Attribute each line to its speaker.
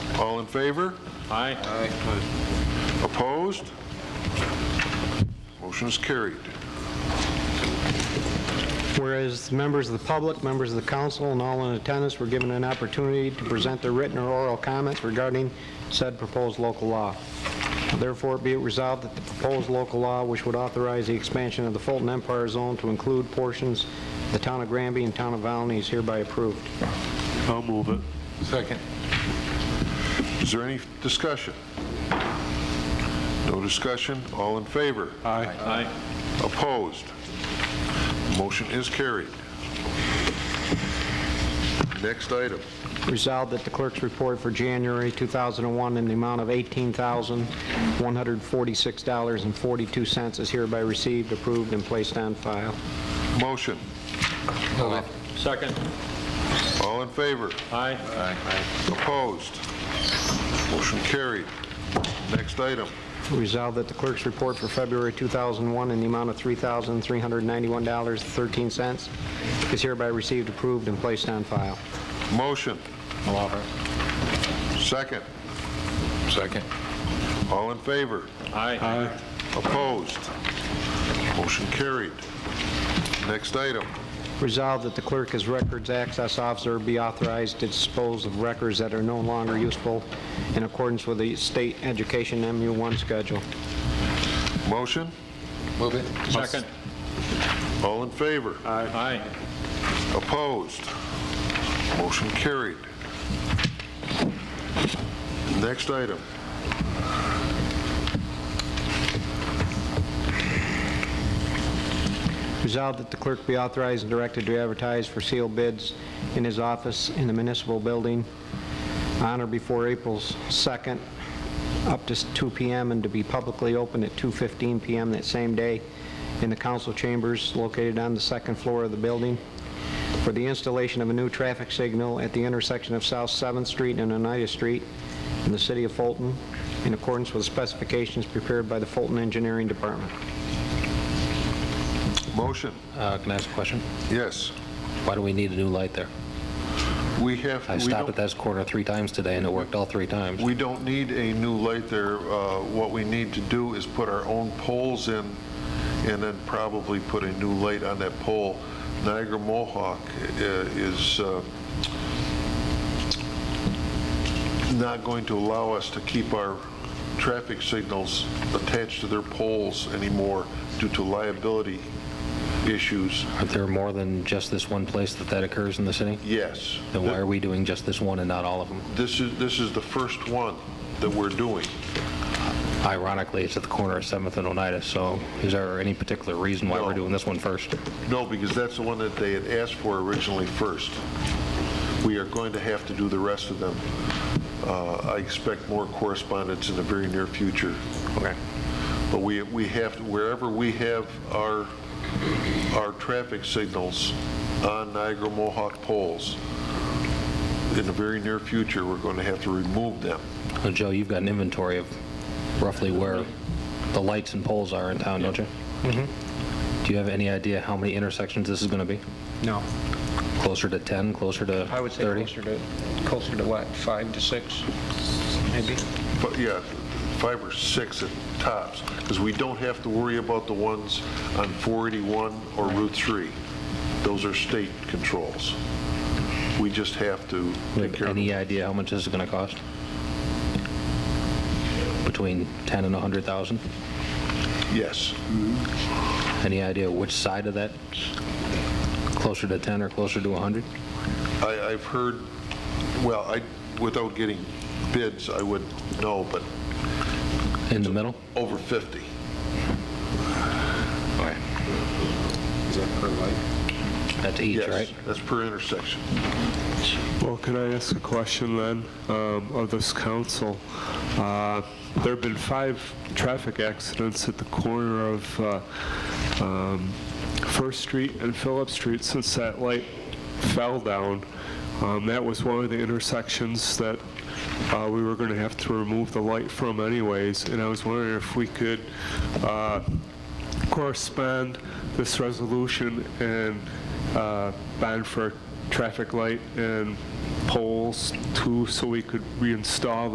Speaker 1: All in favor?
Speaker 2: Aye.
Speaker 1: Opposed? Motion is carried.
Speaker 3: Whereas members of the public, members of the council, and all in attendance were given an opportunity to present their written or oral comments regarding said proposed local law. Therefore, be it resolved that the proposed local law, which would authorize the expansion of the Fulton Empire Zone to include portions of the town of Granby and town of Valney, is hereby approved.
Speaker 4: I'll move it.
Speaker 1: Second. Is there any discussion? No discussion? All in favor?
Speaker 4: Aye.
Speaker 2: Aye.
Speaker 1: Opposed? Motion is carried. Next item.
Speaker 3: Resolved that the clerk's report for January 2001 in the amount of $18,146.42 is hereby received, approved, and placed on file.
Speaker 1: Motion.
Speaker 2: Second.
Speaker 1: All in favor?
Speaker 2: Aye.
Speaker 1: Opposed? Motion carried. Next item.
Speaker 3: Resolved that the clerk's report for February 2001 in the amount of $3,391.13 is hereby received, approved, and placed on file.
Speaker 1: Motion. Second. Second. All in favor?
Speaker 2: Aye.
Speaker 4: Aye.
Speaker 1: Opposed? Motion carried. Next item.
Speaker 3: Resolved that the clerk as records access officer be authorized to dispose of records that are no longer useful in accordance with the state education MU1 schedule.
Speaker 1: Motion.
Speaker 2: Second.
Speaker 1: All in favor?
Speaker 2: Aye.
Speaker 1: Opposed? Motion carried. Next item.
Speaker 3: Resolved that the clerk be authorized and directed to advertise for sealed bids in his office in the municipal building on or before April 2nd, up to 2 PM, and to be publicly open at 2:15 PM that same day in the council chambers located on the second floor of the building for the installation of a new traffic signal at the intersection of South 7th Street and Oneida Street in the city of Fulton, in accordance with specifications prepared by the Fulton Engineering Department.
Speaker 1: Motion.
Speaker 5: Uh, Can I ask a question?
Speaker 1: Yes.
Speaker 5: Why do we need a new light there?
Speaker 1: We have...
Speaker 5: I
Speaker 1: we
Speaker 5: stopped at
Speaker 1: don't-
Speaker 5: that corner three times today, and it worked all three times.
Speaker 1: We don't need a new light there. Uh, What we need to do is put our own poles in and then probably put a new light on that pole. Niagara Mohawk uh, is uh, not going to allow us to keep our traffic signals attached to their poles anymore due to liability issues.
Speaker 5: Aren't there more than just this one place that that occurs in the city?
Speaker 1: Yes.
Speaker 5: Then why are we doing just this one and not all of them?
Speaker 1: This is, this is the first one that we're doing.
Speaker 5: Ironically, it's at the corner of 7th and Oneida, so is there any particular reason why
Speaker 1: No.
Speaker 5: we're doing this one first?
Speaker 1: No, because that's the one that they had asked for originally first. We are going to have to do the rest of them. Uh, I expect more correspondence in the very near future.
Speaker 5: Okay.
Speaker 1: But we, we have, wherever we have our, our traffic signals on Niagara Mohawk poles, in the very near future, we're going to have to remove them.
Speaker 5: Well, Joe, you've got an inventory of roughly where the lights and poles are in town, don't you? Mm-hmm. Do you have any idea how many intersections this is going to be?
Speaker 6: No.
Speaker 5: Closer to 10, closer to 30?
Speaker 6: I would say closer to, closer to what, five to six, maybe?
Speaker 1: But yeah, five or six at tops, because we don't have to worry about the ones on 481 or Route 3. Those are state controls. We just have to
Speaker 5: Do you
Speaker 1: take
Speaker 5: have
Speaker 1: care of
Speaker 5: Any
Speaker 1: them.
Speaker 5: idea how much this is going to cost? Between 10 and 100,000?
Speaker 1: Yes.
Speaker 5: Any idea which side of that? Closer to 10 or closer to 100?
Speaker 1: I, I've heard, well, I, without getting bids, I would know, but
Speaker 5: In the middle?
Speaker 1: over 50.
Speaker 5: That's each, right?
Speaker 1: Yes, that's per intersection.
Speaker 4: Well, can I ask a question then um, of this council? Uh, There have been five traffic accidents at the corner of uh, um, First Street and Phillips Street since that light fell down. Um, That was one of the intersections that uh, we were going to have to remove the light from anyways, and I was wondering if we could uh, correspond this resolution and uh, ban for traffic light and poles too, so we could reinstall